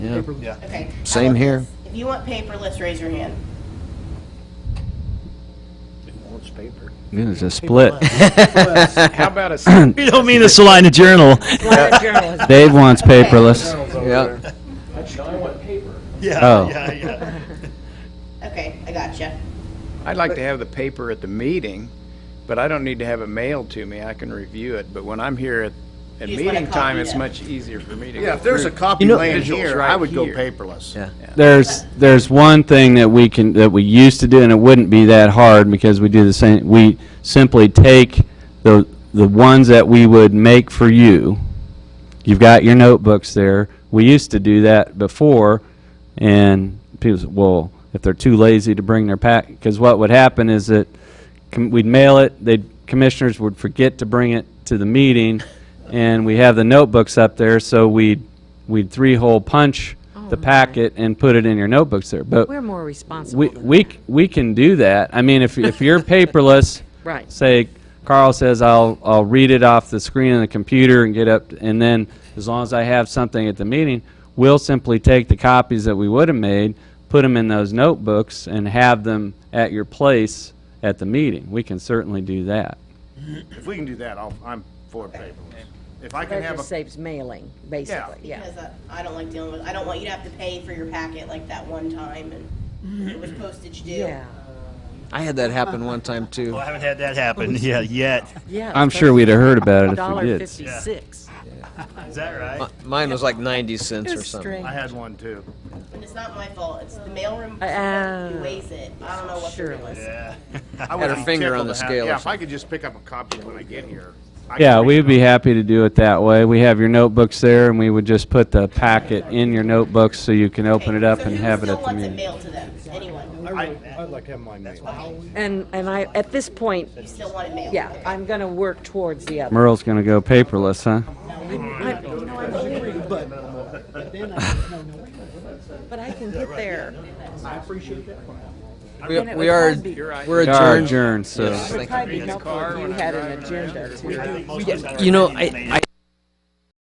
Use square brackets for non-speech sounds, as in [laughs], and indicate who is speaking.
Speaker 1: Yeah.
Speaker 2: Yeah.
Speaker 3: Okay. I
Speaker 1: Same
Speaker 3: want
Speaker 1: here.
Speaker 3: this. If you want paperless, raise your hand.
Speaker 2: It's paper.
Speaker 1: It is a split.
Speaker 4: [coughs] How about
Speaker 1: [laughs]
Speaker 4: a
Speaker 5: You don't mean a Salina Journal.
Speaker 1: Dave wants paperless.
Speaker 2: over
Speaker 1: Yep.
Speaker 2: Yeah,
Speaker 1: Oh.
Speaker 2: yeah, yeah.
Speaker 3: Okay, I gotcha.
Speaker 4: I'd like to have the paper at the meeting, but I don't need to have it mailed to me. I can review it, but when I'm here at, at
Speaker 3: You just want a
Speaker 4: meeting time,
Speaker 3: copy
Speaker 4: it's
Speaker 3: of it.
Speaker 4: much easier for me to go
Speaker 2: Yeah, if there's a
Speaker 4: through.
Speaker 2: copy
Speaker 4: know-
Speaker 2: laying
Speaker 4: Visuals
Speaker 2: here,
Speaker 4: right
Speaker 2: I would go
Speaker 4: here.
Speaker 2: paperless.
Speaker 1: Yeah. There's, there's one thing that we can, that we used to do, and it wouldn't be that hard, because we do the same, we simply take the, the ones that we would make for you. You've got your notebooks there. We used to do that before, and people said, well, if they're too lazy to bring their pack, because what would happen is that com- we'd mail it, they, commissioners would forget to bring it to the meeting, and we have the notebooks up there, so we'd, we'd three-hole punch the
Speaker 6: my.
Speaker 1: packet and put it in your notebooks there, but
Speaker 6: We're more responsible.
Speaker 1: we,
Speaker 6: than
Speaker 1: we,
Speaker 6: that.
Speaker 1: c- we can do that. I mean, if, if you're paperless,
Speaker 6: [laughs] Right.
Speaker 1: say Carl says I'll, I'll read it off the screen of the computer and get up, and then as long as I have something at the meeting, we'll simply take the copies that we would have made, put them in those notebooks, and have them at your place at the meeting. We can certainly do that.
Speaker 2: If we can do that, I'll, I'm for paperless. If I can
Speaker 6: That
Speaker 2: have
Speaker 6: just
Speaker 2: a,
Speaker 6: saves mailing, basically, yeah.
Speaker 3: Because I- I don't like dealing with, I don't want you to have to pay for your packet like that one time and it was postage due.
Speaker 6: Mm-hmm. Yeah,
Speaker 7: I had that happen one time too.
Speaker 2: I haven't had that happen, [laughs] yeah, yet.
Speaker 6: yeah.
Speaker 1: I'm sure we'd have heard about it if we
Speaker 6: Dollar
Speaker 1: did.
Speaker 6: fifty-six.
Speaker 2: Is that right?
Speaker 7: Mine was like 90 cents or
Speaker 6: It's
Speaker 7: something.
Speaker 6: strange.
Speaker 2: I had one too.
Speaker 3: And it's not my fault, it's the mailroom
Speaker 6: Uh,
Speaker 3: person who weighs it. I don't know what the deal
Speaker 6: surely.
Speaker 3: is.
Speaker 2: Yeah.
Speaker 7: Had her finger on the scale or
Speaker 2: Yeah, if I could just pick up a copy when I get here. I could
Speaker 1: Yeah,
Speaker 2: read
Speaker 1: we'd
Speaker 2: it.
Speaker 1: be happy to do it that way. We have your notebooks there, and we would just put the packet in your notebooks so you can open it up
Speaker 3: So
Speaker 1: and
Speaker 3: who
Speaker 1: have it
Speaker 3: still
Speaker 1: at the
Speaker 3: wants it
Speaker 1: meeting.
Speaker 3: mailed to them? Anyone?
Speaker 2: I-
Speaker 6: And, and I, at this point,
Speaker 3: You still want it mailed?
Speaker 6: yeah, I'm gonna work towards the other.
Speaker 1: Merle's gonna go paperless, huh?
Speaker 6: But I can get there.
Speaker 7: We,
Speaker 6: it
Speaker 7: we
Speaker 6: would
Speaker 7: are
Speaker 6: probably be-
Speaker 7: we're
Speaker 1: We are
Speaker 7: adjourned.
Speaker 1: adjourned, so.
Speaker 7: Yes, thank you.
Speaker 6: Probably helpful if you had an agenda too.
Speaker 7: You know, I, I